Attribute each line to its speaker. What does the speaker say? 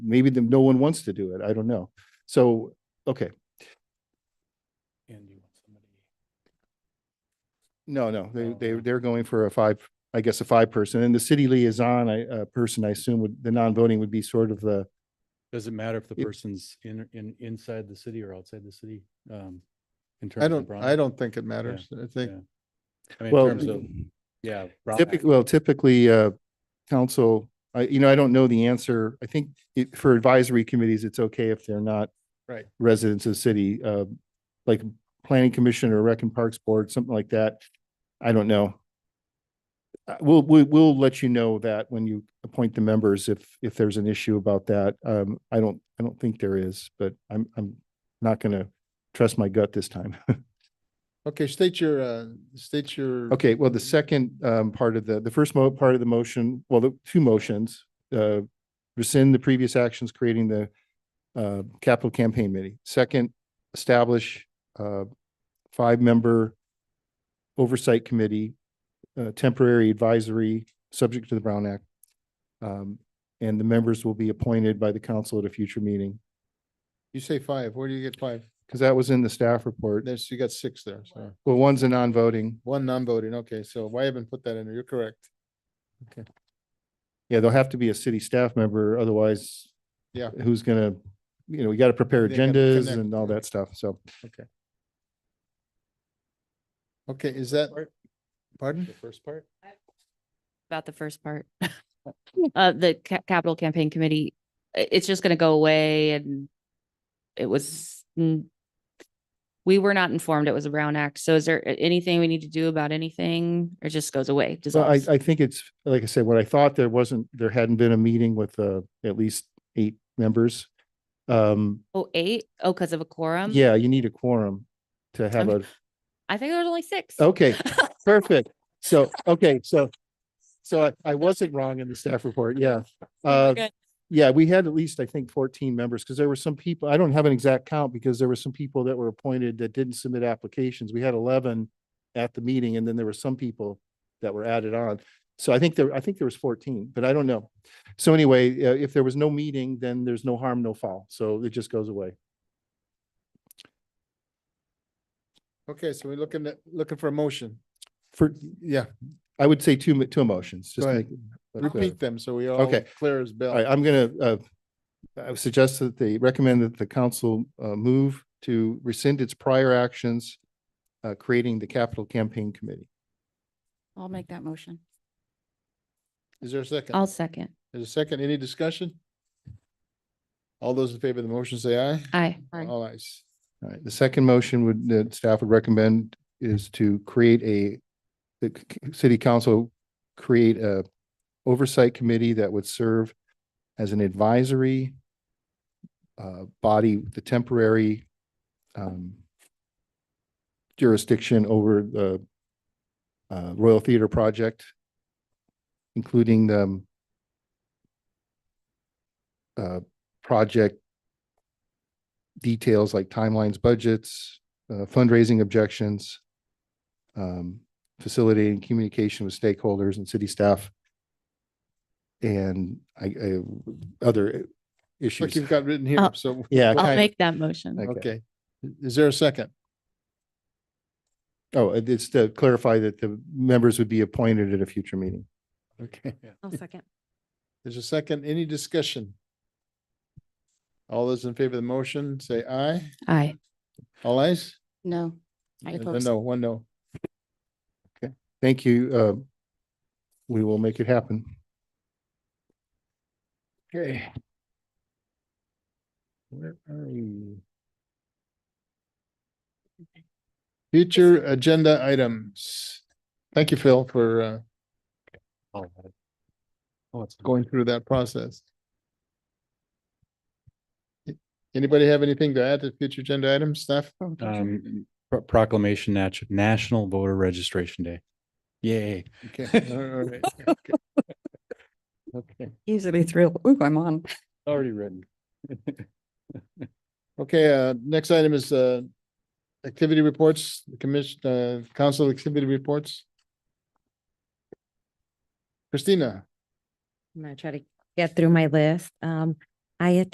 Speaker 1: maybe the- no one wants to do it. I don't know. So, okay,
Speaker 2: And you want somebody.
Speaker 1: no, no, they,
Speaker 2: Oh,
Speaker 1: they,
Speaker 2: okay.
Speaker 1: they're going for a five, I guess, a five person. And the city liaison, I, uh, person, I assume would, the non-voting would be sort of the,
Speaker 2: Does it matter if the
Speaker 1: It-
Speaker 2: person's in, in, inside the city or outside the city? Um, in terms
Speaker 3: I
Speaker 2: of
Speaker 3: don't,
Speaker 2: Brown-
Speaker 3: I don't think it matters. I think,
Speaker 2: yeah. I mean, in
Speaker 1: well,
Speaker 2: terms of, yeah. Brown Act.
Speaker 1: typically, well, typically, uh, council, I, you know, I don't know the answer. I think it, for advisory committees, it's okay if they're not
Speaker 3: Right.
Speaker 1: residents of the city, uh, like planning commission or rec and parks board, something like that. I don't know. Uh, we'll, we, we'll let you know that when you appoint the members, if, if there's an issue about that. Um, I don't, I don't think there is, but I'm, I'm not gonna trust my gut this time.
Speaker 3: okay, state your, uh, state your.
Speaker 1: Okay, well, the second um part of the, the first mo- part of the motion, well, the two motions, uh, rescind the previous actions creating the uh, capital campaign committee. Second, establish uh, five-member oversight committee, uh, temporary advisory, subject to the Brown Act. Um, and the members will be appointed by the council at a future meeting,
Speaker 3: You say five. Where do you get five?
Speaker 1: because that was in the staff report.
Speaker 3: There's, you got six there, so
Speaker 1: Well, one's a non-voting.
Speaker 3: one non-voting. Okay, so why haven't put that in there? You're correct.
Speaker 1: Yeah, there'll have to be a city staff member, otherwise.
Speaker 3: Yeah.
Speaker 1: Who's gonna, you know, we gotta prepare
Speaker 3: They gotta
Speaker 1: agendas
Speaker 3: connect,
Speaker 1: and all
Speaker 3: yeah.
Speaker 1: that stuff, so.
Speaker 3: Okay, is that,
Speaker 2: Part-
Speaker 3: pardon?
Speaker 2: The first part?
Speaker 4: about the first part. Uh, the ca- capital campaign committee, i- it's just gonna go away and it was mm, we were not informed it was a Brown Act. So is there a- anything we need to do about anything or it just goes away?
Speaker 1: Well, I,
Speaker 4: dissolves?
Speaker 1: I think it's, like I said, what I thought, there wasn't, there hadn't been a meeting with, uh, at least eight members. Um,
Speaker 4: Oh, eight? Oh, because of a quorum?
Speaker 1: yeah, you need a quorum to have a,
Speaker 4: I'm- I think there was only six.
Speaker 1: okay, perfect. So, okay, so, so I, I wasn't wrong in the staff report, yeah. Uh,
Speaker 4: good.
Speaker 1: yeah, we had at least, I think, fourteen members, because there were some people, I don't have an exact count, because there were some people that were appointed that didn't submit applications. We had eleven at the meeting, and then there were some people that were added on. So I think there, I think there was fourteen, but I don't know. So anyway, uh, if there was no meeting, then there's no harm, no foul, so it just goes away.
Speaker 3: Okay, so we're looking at, looking for a motion.
Speaker 1: For,
Speaker 3: Yeah,
Speaker 1: I would say two, mo- two motions, just
Speaker 3: Go
Speaker 1: make.
Speaker 3: ahead.
Speaker 1: but, uh,
Speaker 3: repeat them so we all
Speaker 1: Okay.
Speaker 3: clear as bell.
Speaker 1: All right, I'm gonna, uh, I would suggest that they recommend that the council, uh, move to rescind its prior actions, uh, creating the capital campaign committee.
Speaker 4: I'll make that motion.
Speaker 3: Is there a second?
Speaker 4: I'll second.
Speaker 3: Is a second, any discussion? All those in favor of the motion say aye.
Speaker 4: Aye.
Speaker 3: All ayes.
Speaker 1: All right, the second motion would, that staff would recommend is to create a, the c- c- city council create a oversight committee that would serve as an advisory uh, body, the temporary um, jurisdiction over the uh, Royal Theater project, including the um, uh, project details like timelines, budgets, uh, fundraising objections, um, facilitating communication with stakeholders and city staff, and I, I, other
Speaker 3: Look,
Speaker 1: issues.
Speaker 3: you've got written here,
Speaker 4: I'll-
Speaker 3: so.
Speaker 1: Yeah.
Speaker 3: Go
Speaker 4: I'll
Speaker 3: ahead.
Speaker 4: make that motion.
Speaker 1: Okay.
Speaker 3: Okay, is there a second?
Speaker 1: Oh, it- it's to clarify that the members would be appointed at a future meeting.
Speaker 3: Okay,
Speaker 4: I'll second.
Speaker 3: there's a second, any discussion? All those in favor of the motion, say aye.
Speaker 4: Aye.
Speaker 3: All ayes?
Speaker 4: No. I
Speaker 3: And a
Speaker 4: oppose.
Speaker 3: No, one no.
Speaker 1: Thank you. uh, We will make it happen.
Speaker 3: Okay. Where are you? Future agenda items. Thank you, Phil, for uh,
Speaker 2: All right.
Speaker 3: Oh, it's going through that process. A- Anybody have anything to add to future agenda items, staff?
Speaker 2: Um, pro- proclamation nat- National Voter Registration Day. Yay.
Speaker 3: Okay, all right, okay. Okay,
Speaker 5: Easily thrilled. Ooh, I'm on.
Speaker 2: Already written.
Speaker 3: okay, uh, next item is uh, activity reports, the commission, uh, council activity reports. Christina,
Speaker 6: I'm gonna try to get through my list. Um, I attend